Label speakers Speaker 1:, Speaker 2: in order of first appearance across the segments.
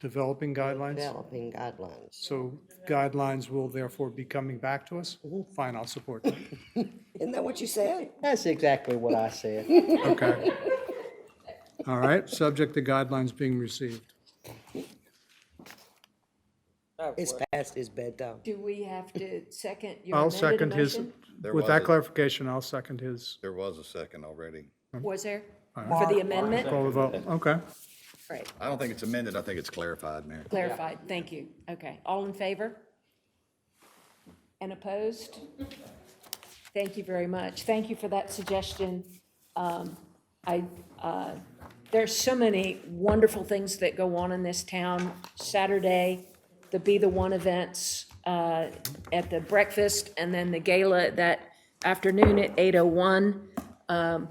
Speaker 1: developing guidelines.
Speaker 2: developing guidelines.
Speaker 1: So guidelines will therefore be coming back to us? Fine, I'll support that.
Speaker 2: Isn't that what you said?
Speaker 3: That's exactly what I said.
Speaker 1: Okay. All right, subject to guidelines being received.
Speaker 2: It's past his bedtime.
Speaker 4: Do we have to second your
Speaker 1: I'll
Speaker 4: amended
Speaker 1: second his,
Speaker 4: motion?
Speaker 5: There
Speaker 1: with
Speaker 5: was
Speaker 1: that
Speaker 5: a-
Speaker 1: clarification, I'll second his.
Speaker 5: There was a second already.
Speaker 1: Oh.
Speaker 4: Was there? For the amendment?
Speaker 1: Call the vote, okay.
Speaker 4: Right,
Speaker 5: I don't think it's amended, I think it's clarified, Mayor.
Speaker 4: clarified, thank you. Okay, all in favor? And opposed? Thank you very much. Thank you for that suggestion. Um, I, uh, there's so many wonderful things that go on in this town. Saturday, the Be the One events uh, at the breakfast, and then the gala that afternoon at 8:01.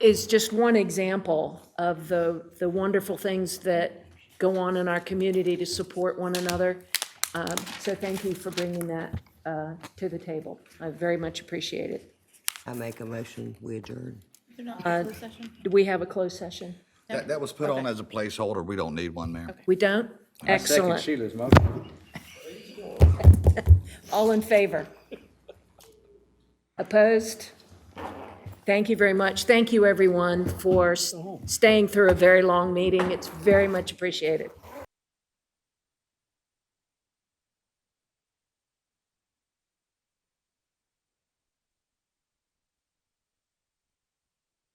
Speaker 4: is just one example of the, the wonderful things that go on in our community to support one another. Um, So thank you for bringing that uh, to the table. I very much appreciate it.
Speaker 2: I make a motion, we adjourn.
Speaker 6: They're not in closed session?
Speaker 4: Do we have a closed session?
Speaker 5: That, that was put on as a placeholder, we don't need one, Mayor.
Speaker 4: We don't? Excellent.
Speaker 3: Sheila's motion.
Speaker 4: All in favor? Opposed? Thank you very much. Thank you, everyone, for s- staying through a very long meeting. It's very much appreciated.